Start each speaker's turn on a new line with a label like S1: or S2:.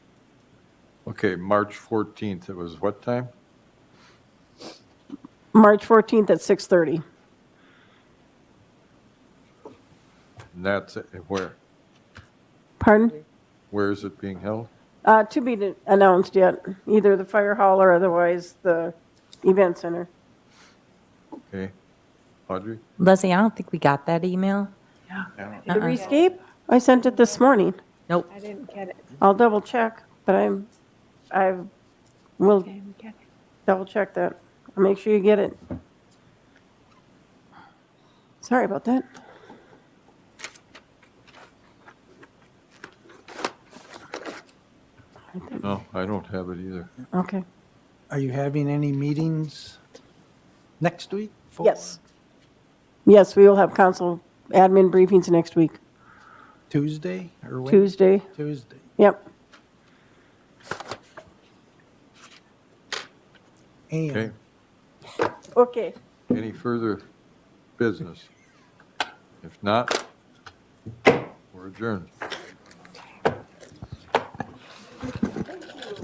S1: Okay, March 14th, it was what time?
S2: March 14th at 6:30.
S1: And that's, it. where,
S2: Pardon?
S1: where is it being held?
S2: Uh, To be de- announced yet, either the fire hall or otherwise the event center.
S1: Okay, Audrey?
S3: Leslie, I don't think we got that email. Uh-uh.
S2: The rescape? I sent it this morning.
S3: Nope.
S4: I didn't get it.
S2: I'll double check, but I'm, I will
S4: I didn't get it.
S2: double check that. I'll Make sure you get it. Sorry about that.
S1: No, I don't have it either.
S2: Okay.
S5: Are you having any meetings next week? for-
S2: Yes. Yes, we will have council admin briefings next week,
S5: Tuesday or Wed-
S2: Tuesday.
S5: Tuesday.
S2: Yep.
S1: Okay,
S5: And
S2: Okay.
S1: any further business? If not, we're adjourned.